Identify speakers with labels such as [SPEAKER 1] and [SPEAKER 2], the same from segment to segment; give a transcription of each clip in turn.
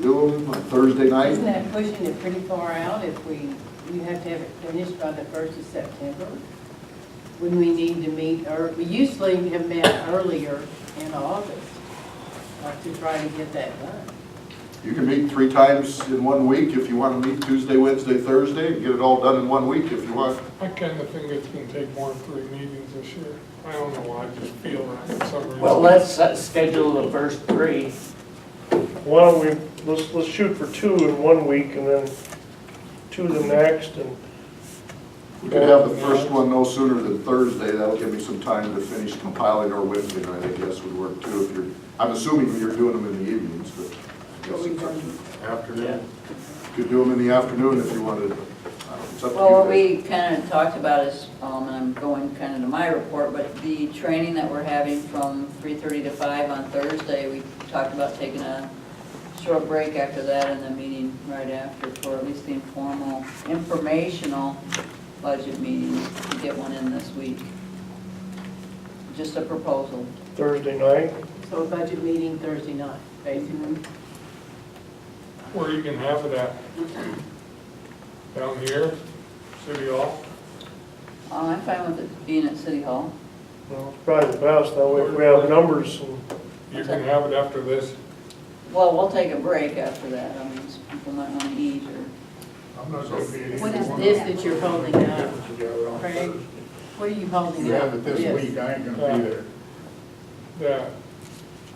[SPEAKER 1] do them on Thursday night?
[SPEAKER 2] Isn't that pushing it pretty far out if we, you have to have it finished by the first of September? When we need to meet, or, we usually have met earlier in August, like to try to get that done.
[SPEAKER 1] You can meet three times in one week if you want to meet Tuesday, Wednesday, Thursday, and get it all done in one week if you want.
[SPEAKER 3] I kind of think it's gonna take more than three meetings this year. I don't know why, I just feel that for some reason.
[SPEAKER 4] Well, let's uh, schedule the first three.
[SPEAKER 5] Why don't we, let's, let's shoot for two in one week and then two the next and,
[SPEAKER 1] We could have the first one no sooner than Thursday, that'll give me some time to finish compiling or Wednesday night, I guess would work too, if you're, I'm assuming you're doing them in the evenings, but I guess it's up to
[SPEAKER 4] Yeah.
[SPEAKER 1] afternoon. Could do them in the afternoon if you wanted, I don't know, it's up to you.
[SPEAKER 6] Well, what
[SPEAKER 1] guys.
[SPEAKER 6] we kind of talked about is, um, and I'm going kind of to my report, but the training that we're having from 3:30 to 5 on Thursday, we talked about taking a short break after that and the meeting right after for at least the informal, informational budget meetings, to get one in this week. Just a proposal.
[SPEAKER 5] Thursday night.
[SPEAKER 2] So a budget meeting Thursday night, basically.
[SPEAKER 3] Where you can have it at? Down here, City Hall?
[SPEAKER 6] Uh, I'm fine with it being at City Hall.
[SPEAKER 5] Well, it's probably the best, that way if we have numbers and
[SPEAKER 3] You can have it after this.
[SPEAKER 6] Well, we'll take a break after that, I mean, people might want to eat or
[SPEAKER 3] I'm not gonna be.
[SPEAKER 2] What is this that you're holding up? Craig,
[SPEAKER 3] That,
[SPEAKER 2] what are you holding
[SPEAKER 7] You
[SPEAKER 2] up?
[SPEAKER 7] have it this week, I ain't gonna be there.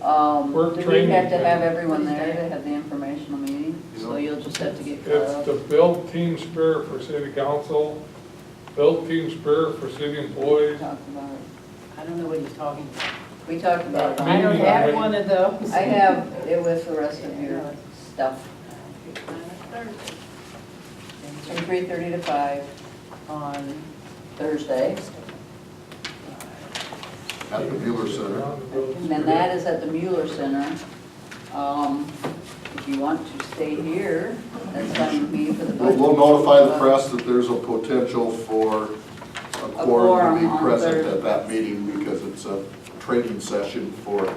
[SPEAKER 6] Um,
[SPEAKER 3] Work
[SPEAKER 6] do we
[SPEAKER 3] training
[SPEAKER 6] have to have
[SPEAKER 3] thing.
[SPEAKER 6] everyone there to have the informational meeting? So you'll just have to get
[SPEAKER 3] it's
[SPEAKER 6] caught
[SPEAKER 3] the
[SPEAKER 6] up.
[SPEAKER 3] build team spirit for city council, build team spirit for city
[SPEAKER 6] We
[SPEAKER 3] employees.
[SPEAKER 6] talked about it.
[SPEAKER 2] I don't know what he's talking about.
[SPEAKER 6] We talked about it.
[SPEAKER 2] I don't
[SPEAKER 3] Meeting
[SPEAKER 2] have
[SPEAKER 3] already.
[SPEAKER 2] one of those.
[SPEAKER 6] I have it with the rest of your stuff, from
[SPEAKER 2] Thursday.
[SPEAKER 6] three thirty to five
[SPEAKER 2] On,
[SPEAKER 6] Thursday.
[SPEAKER 1] At the Mueller Center.
[SPEAKER 6] And then that is at the Mueller Center. Um, if you want to stay here, that's on me for the
[SPEAKER 1] We'll
[SPEAKER 6] budget.
[SPEAKER 1] we'll notify the press that there's a potential for a quorum to
[SPEAKER 6] quorum
[SPEAKER 1] be
[SPEAKER 6] on
[SPEAKER 1] present
[SPEAKER 6] Thursday.
[SPEAKER 1] at that meeting because it's a training session for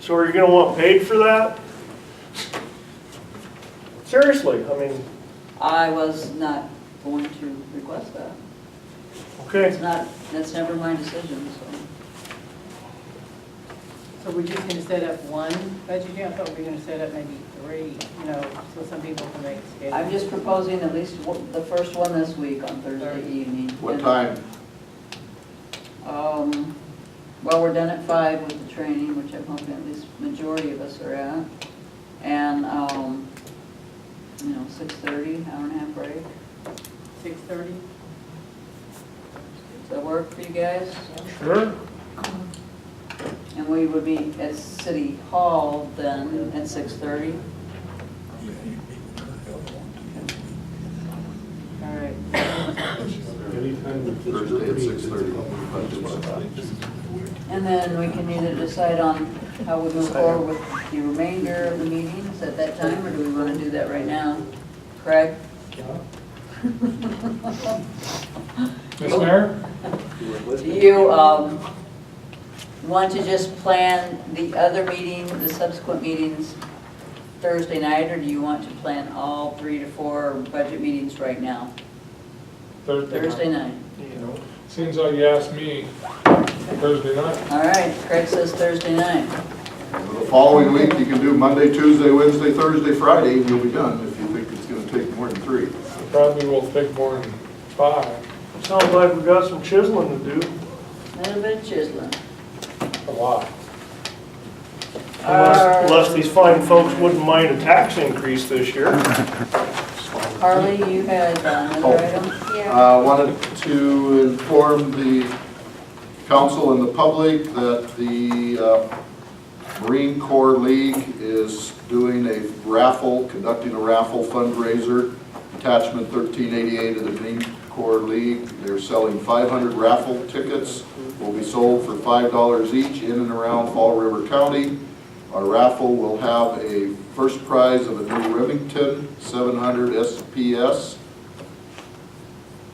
[SPEAKER 5] So are you gonna want paid for that? Seriously, I mean,
[SPEAKER 6] I was not going to request that.
[SPEAKER 5] okay,
[SPEAKER 6] It's not, that's never my decision, so.
[SPEAKER 2] so we're just gonna set up one budget hearing? I thought we were gonna set up maybe three, you know, so some people can make a schedule.
[SPEAKER 6] I'm just proposing at least one- the first one this week on Thursday evening.
[SPEAKER 1] what time?
[SPEAKER 6] Um, well, we're done at five with the training, which I'm hoping at least majority of us are at. And, um, you know, six thirty, hour and a half break.
[SPEAKER 2] Six thirty?
[SPEAKER 6] Does that work for you guys?
[SPEAKER 5] sure.
[SPEAKER 6] And we would be at City Hall then at six thirty.
[SPEAKER 2] All right.
[SPEAKER 1] Thursday at six thirty.
[SPEAKER 6] And then we can either decide on how we move forward with the remainder of the meetings at that time, or do we wanna do that right now? Craig?
[SPEAKER 3] Ms. Mayor,
[SPEAKER 6] Do you um, want to just plan the other meeting, the subsequent meetings Thursday night, or do you want to plan all three to four budget meetings right now?
[SPEAKER 3] Thursday
[SPEAKER 6] Thursday
[SPEAKER 3] night.
[SPEAKER 6] night.
[SPEAKER 3] Seems like you asked me Thursday night.
[SPEAKER 6] All right, Craig says Thursday night.
[SPEAKER 1] The following week, you can do Monday, Tuesday, Wednesday, Thursday, Friday, and you'll be done if you think it's gonna take more than three.
[SPEAKER 3] Probably will take more than five,
[SPEAKER 5] Sounds like we got some chiseling to do.
[SPEAKER 6] A Little bit of chiseling.
[SPEAKER 3] a lot.
[SPEAKER 6] Uh,
[SPEAKER 5] Unless, unless these fine folks wouldn't mind a tax increase this year.
[SPEAKER 6] Harley, you had uh, another item?
[SPEAKER 1] Uh, Wanted to inform the council and the public that the uh, Marine Corps League is doing a raffle, conducting a raffle fundraiser, attachment 1388 of the Marine Corps League. They're selling 500 raffle tickets, will be sold for $5 each in and around Fall River County. Our raffle will have a first prize of a new Remington 700 SPS,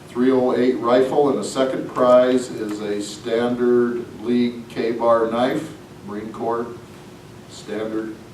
[SPEAKER 1] 308 rifle, and the second prize is a standard league K-bar knife, Marine Corps standard